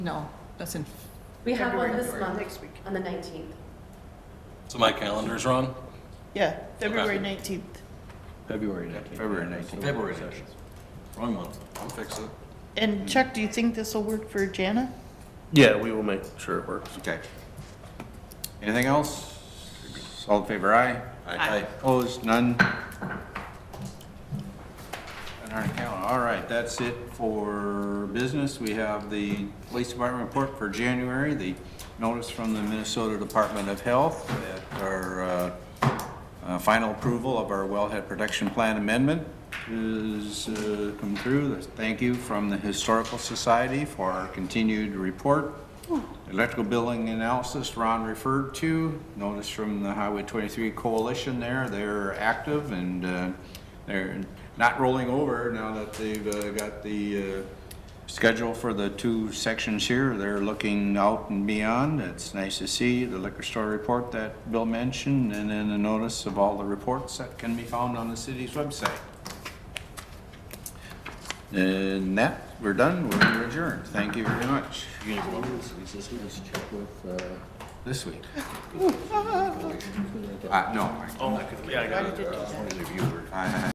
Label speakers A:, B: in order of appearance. A: No, that's in,
B: We have one
A: February.
B: this month,
C: Next week.
B: on the nineteenth.
D: So my calendar's wrong?
C: Yeah, February 19th.
E: February 19th.
F: February 19th.
D: February.
F: Wrong month.
D: I'll fix it.
C: And Chuck, do you think this will work for Jana?
E: Yeah, we will make sure it works.
F: Okay. Anything else? All in favor, aye.
D: Aye.
F: Opposed, none. On our account, all right, that's it for business. We have the police department report for January, the notice from the Minnesota Department of Health, that our uh, uh, final approval of our wellhead protection plan amendment is uh, come through. There's Thank you from the Historical Society for our continued report. Electrical billing analysis Ron referred to, notice from the Highway 23 Coalition there, they're active and uh, they're not rolling over now that they've uh, got the uh, schedule for the two sections here. They're looking out and beyond. It's nice to see the liquor store report that Bill mentioned and then a notice of all the reports that can be found on the city's website. And that, we're done, we're adjourned. Thank you very much. This week? Uh, no.
C: Why did it do that?
F: I-